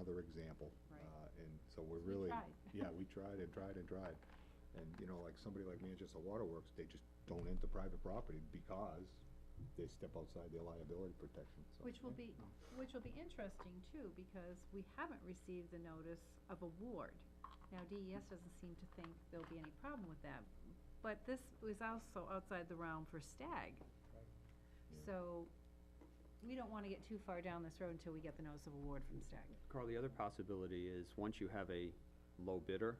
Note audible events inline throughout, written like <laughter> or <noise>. example. Right. uh, And so we're We really. tried. <laughs> Yeah, we tried and tried and tried. And, you know, like somebody like Manchester Waterworks, they just don't enter private property because they step outside their liability protection, so. Which will be, which will be interesting too, because we haven't received the notice of award. Now, DES doesn't seem to think there'll be any problem with that, but this was also outside the realm for stag. So, we don't wanna get too far down this road until we get the notice of award from stag. Carl, the other possibility is, once you have a low bidder,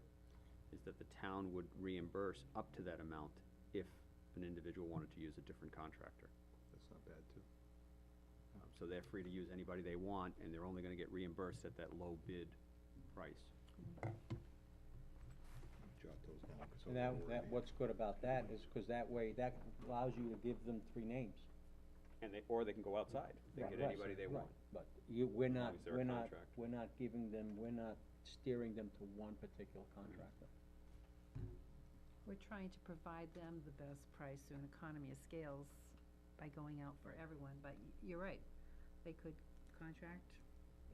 is that the town would reimburse up to that amount if an individual wanted to use a different contractor. That's not bad, too. Oh. Um, So they're free to use anybody they want, and they're only gonna get reimbursed at that low bid price. Jot those down. so And that, we're that, ready. what's good about that is, cause that way, that allows you to give them three names. And they, or they can go outside, they Right, get right, anybody they right. want. But you, we're long not, as they're a we're not, contract. we're not giving them, we're not steering them to one particular contractor. We're trying to provide them the best price through an economy of scales by going out for everyone, but y- you're right. They could contract,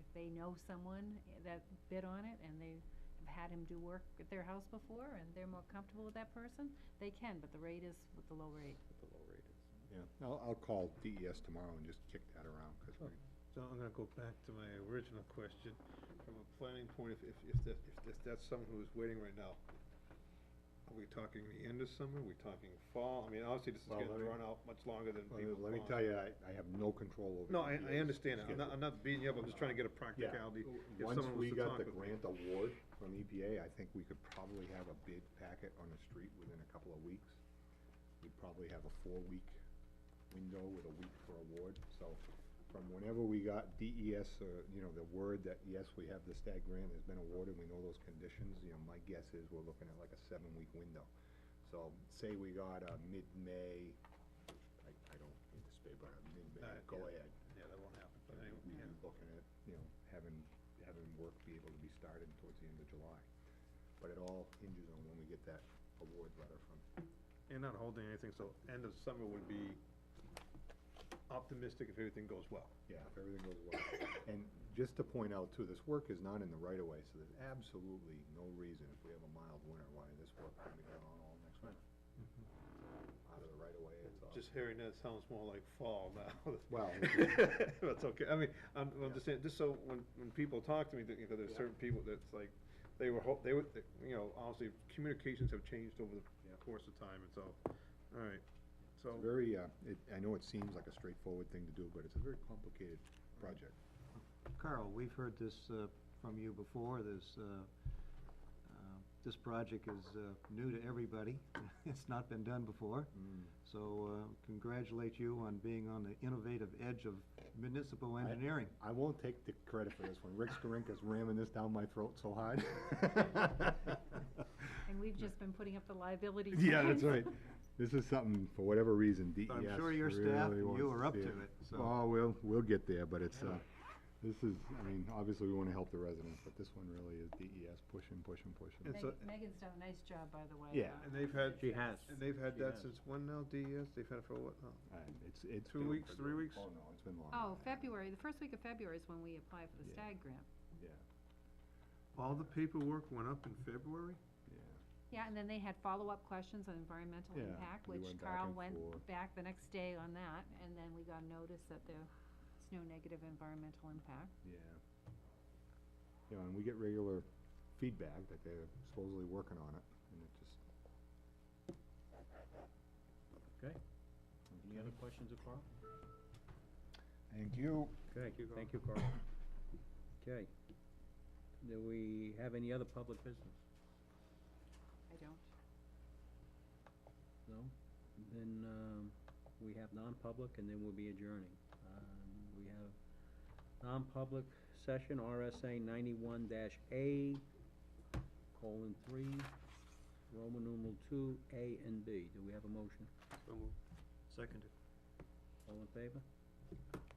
if they know someone eh, that bid on it and they have had him do work at their house before and they're more comfortable with that person, they can, but the rate is with the low rate. At the low rate is. Yeah, I'll, I'll call DES tomorrow and just kick that around, because we, So I'm gonna go back to my original question, from a planning point, if, if, if that, if that's, that's someone who's waiting right now, are we talking the end of summer, are we talking fall, I mean, obviously, this is Well, gonna let me- drawn out much longer than well, people let want. me tell you, I, I have no control over. E No, I, I DES understand, that. I'm not, schedule. I'm not beating you up, I'm just trying to get a Yeah. practicality, if Oh, Once someone was we to got talk the with me. grant award from EPA, I think we could probably have a bid packet on the street within a couple of weeks. We'd probably have a four-week window with a week for award, so from whenever we got DES, uh, you know, the word that, yes, we have the stag grant has been awarded, we know those conditions, you know, my guess is we're looking at like a seven-week window. So say we got a mid-May, I, I don't anticipate, but a mid-May, Uh, go yeah. ahead Yeah, that won't happen, but and anyway, we'd yeah. be looking at, you know, having, having work be able to be started towards the end of July. But it all hinges on when we get that award letter from. and not holding anything, so end of summer would be optimistic if everything goes well. Yeah, if everything goes well. And just to point out too, this work is not in the right of way, so there's absolutely no reason, if we have a mild winter, why this work couldn't be done on all next winter. Out of the right of way, it's all. Mm-hmm. Just hearing that sounds more like fall now. <laughs> Well, <laughs> That's okay, I mean, I'm, I'm just saying, just so when, when people talk to me, that, you know, there's certain people that's like, they were, ho- they were, they- you know, obviously, communications have changed over Yeah. the course of time, and so, alright, so. It's very, uh, it, I know it seems like a straightforward thing to do, but it's a very complicated project. Carl, we've heard this uh, from you before, this, uh, uh, this project is uh, new to everybody. <laughs> It's not been done before. Mm. So uh, congratulate you on being on the innovative edge of municipal engineering. I won't take the credit for this one. Rick Skorinka's ramming this down my throat <laughs> so hard. And we've just been putting up the liability. <laughs> Yeah, that's signs. right. This is something, for whatever reason, DES I'm sure your staff really and you wants are up see. to it, so- Oh, we'll, we'll get there, but it's, uh, this is, I mean, obviously, we wanna help the residents, but this one really is DES pushing, pushing, pushing. It's Megan- a- Megan's done a nice job, by the way. Yeah. uh, And they've had. She has. And they've had She that has. since when now, DES, they've had it for what, now? And it's, it's. Two been- weeks, three weeks? Oh, no, it's been longer. Oh, February, the first week of February is when we apply for the Yeah. stag grant. Yeah, all the paperwork went up in February? yeah. Yeah, and then they had follow-up questions on environmental Yeah, impact, we which went back Carl and went forth. back the next day on that, and then we got notice that there's no negative environmental impact. Yeah. You know, and we get regular feedback that they're supposedly working on it, and it just, Okay. Any other questions of Carl? thank you. Okay, you, Carl. thank you, Carl. Okay. Do we have any other public business? I don't. No? Then, um, we have non-public and then we'll be adjourning. Um, we have non-public session, RSA ninety-one dash A, colon three, Roman numeral two, A and B. Do we have a motion? So moved. Seconded. All in favor?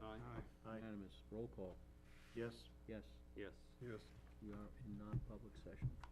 Uh, Aye. Unanimous. Roll call. Yes. Yes, Yes. Yes. we are in non-public session.